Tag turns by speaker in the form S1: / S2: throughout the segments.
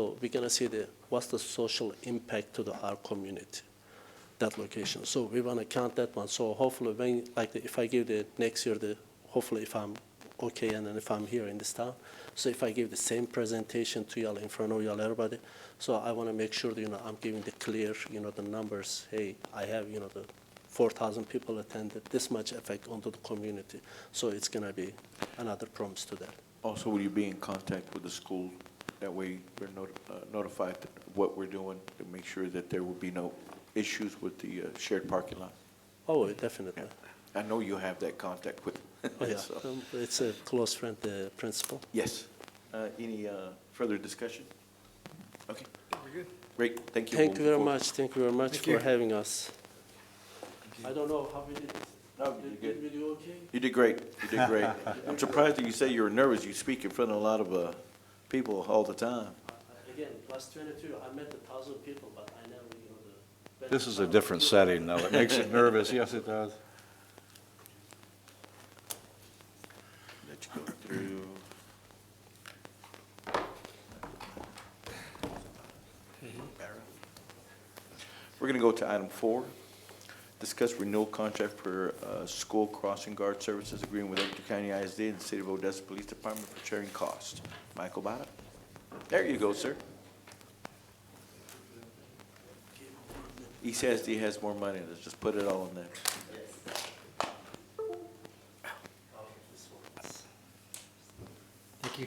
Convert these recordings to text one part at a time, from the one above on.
S1: So we're gonna see the, what's the social impact to the, our community, that location. So we wanna count that one. So hopefully when, like, if I give the, next year, the, hopefully if I'm okay and then if I'm here in this town, so if I give the same presentation to y'all in front of y'all, everybody, so I wanna make sure, that, you know, I'm giving the clear, you know, the numbers. Hey, I have, you know, the four thousand people attended, this much effect onto the community. So it's gonna be another promise to that.
S2: Also, will you be in contact with the school? That way, we're noti- uh, notified that what we're doing to make sure that there will be no issues with the uh, shared parking lot.
S1: Oh, definitely.
S2: I know you have that contact with.
S1: Oh, yeah.
S2: so-
S1: Um, It's a close friend, the principal.
S2: Yes. Uh, Any uh, further discussion? Okay,
S3: We're good.
S2: great, thank you.
S1: Thank
S2: We'll
S1: you very
S2: move
S1: much, thank you very much
S3: Thank
S1: for
S3: you.
S1: having us. I don't know how we did.
S2: No, you
S1: Did- Did
S2: good.
S1: we do okay?
S2: forward. You did great, you did great. I'm surprised that you say you were nervous. You speak in front of a lot of uh, people all the time.
S1: Uh, Again, last 22, I met a thousand people, but I never, you know, the.
S4: This is a different setting, though. It makes it nervous. Yes, it does.
S2: Let you go through. We're going to go to item four. Discuss renewal contract for uh, school crossing guard services agreement with Ector County ISD and the City of Odessa Police Department for sharing costs. Michael Bada? There you go, sir. ECSD has more money. Let's just put it all in there.
S1: uh,
S3: Thank you.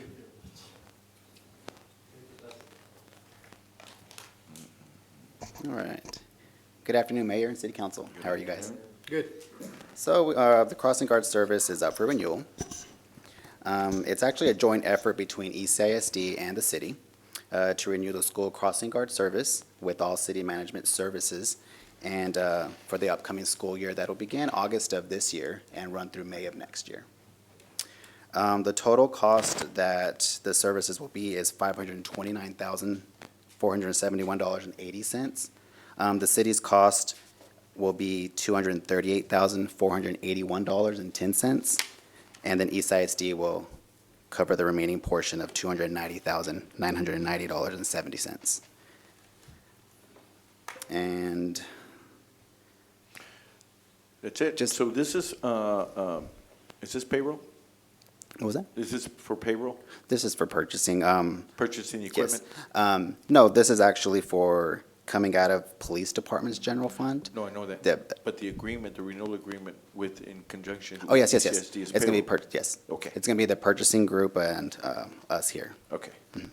S5: All right. Good afternoon, Mayor and City Council. How are you guys?
S3: Good.
S5: So, uh, the crossing guard service is up for renewal. Um, it's actually a joint effort between ECISD and the city, uh, to renew the school crossing guard service with all city management services. And, uh, for the upcoming school year, that'll begin August of this year and run through May of next year. Um, the total cost that the services will be is five hundred and twenty-nine thousand, four hundred and seventy-one dollars and eighty cents. Um, the city's cost will be two hundred and thirty-eight thousand, four hundred and eighty-one dollars and ten cents. And then East ISD will cover the remaining portion of two hundred and ninety thousand, nine hundred and ninety dollars and seventy cents. And
S2: That's it.
S5: Just-
S2: So this is, uh, um, is this payroll?
S5: what was that?
S2: Is this for payroll,
S5: This is for purchasing, um,
S2: purchasing
S5: yes.
S2: equipment?
S5: Um, no, this is actually for coming out of police department's general fund.
S2: No, I know
S5: Yeah.
S2: that. But the agreement, the renewal agreement with, in conjunction.
S5: Oh, yes, yes,
S2: with
S5: yes.
S2: ECSD is
S5: It's gonna be
S2: payroll.
S5: per, yes.
S2: Okay.
S5: It's gonna be the purchasing group and, uh, us here.
S2: Okay.
S5: Mm-hmm.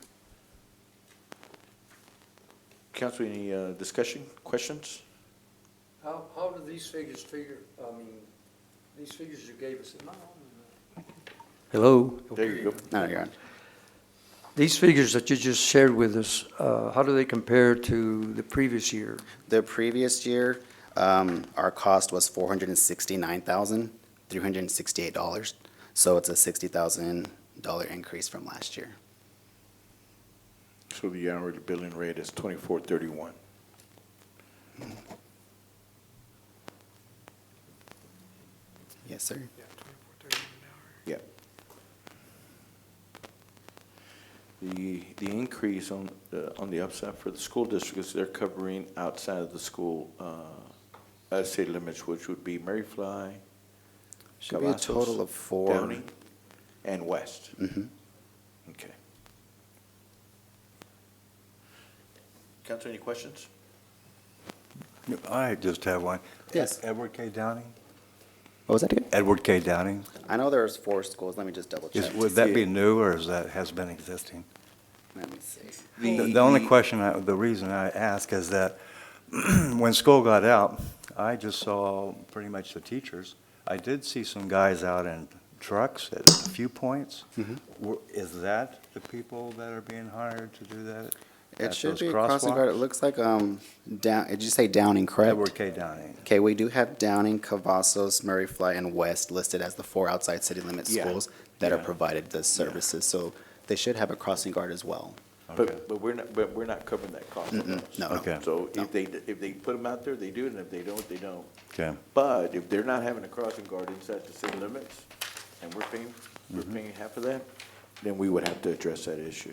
S2: Council, any uh, discussion, questions?
S3: How, how do these figures figure, I mean, these figures you gave us, am I on? Hello?
S2: There you go.
S5: No, you're on.
S3: These figures that you just shared with us, uh, how do they compare to the previous year?
S5: The previous year, um, our cost was four hundred and sixty-nine thousand, three hundred and sixty-eight dollars. So it's a sixty thousand dollar increase from last year.
S2: So the hourly billing rate is twenty-four thirty-one.
S5: Yes, sir.
S2: Yeah. The, the increase on, the- on the upside for the school district is they're covering outside of the school, uh, uh, city limits, which would be Maryfly,
S5: Should be a
S2: Cavazos,
S5: total of four.
S2: Downey, and West.
S5: Mhm.
S2: Okay. Council, any questions?
S4: I just have one.
S5: Yes.
S4: Edward K. Downing?
S5: What was that again?
S4: Edward K. Downing?
S5: I know there's four schools. Let me just double
S4: Is,
S5: check.
S4: would that be new, or is that, has been existing?
S5: Let me see.
S4: The the only question, I- the reason I ask is that when school got out, I just saw pretty much the teachers. I did see some guys out in trucks at a few points.
S5: Mm-hmm.
S4: Were- Is that the people that are being hired to do that?
S5: It
S4: at
S5: should
S4: those
S5: be a crossing guard. It
S4: crosswalks?
S5: looks like, um, down, did you say Downing, correct?
S4: Edward K. Downing.
S5: Okay, we do have Downing, Cavazos, Murray Fly, and West listed as the four outside city limit
S2: Yeah.
S5: schools that are
S2: Yeah.
S5: provided the services, so they should have a crossing guard as well.
S4: Okay.
S2: But, but we're not, but we're not covering that cost.
S5: Mm-mm, no, no.
S4: Okay.
S2: So
S5: No.
S2: if they, if they put them out there, they do, and if they don't, they don't.
S4: Okay.
S2: But if they're not having a crossing guard inside the city limits, and we're paying, we're paying half of that, then we would have to address that issue.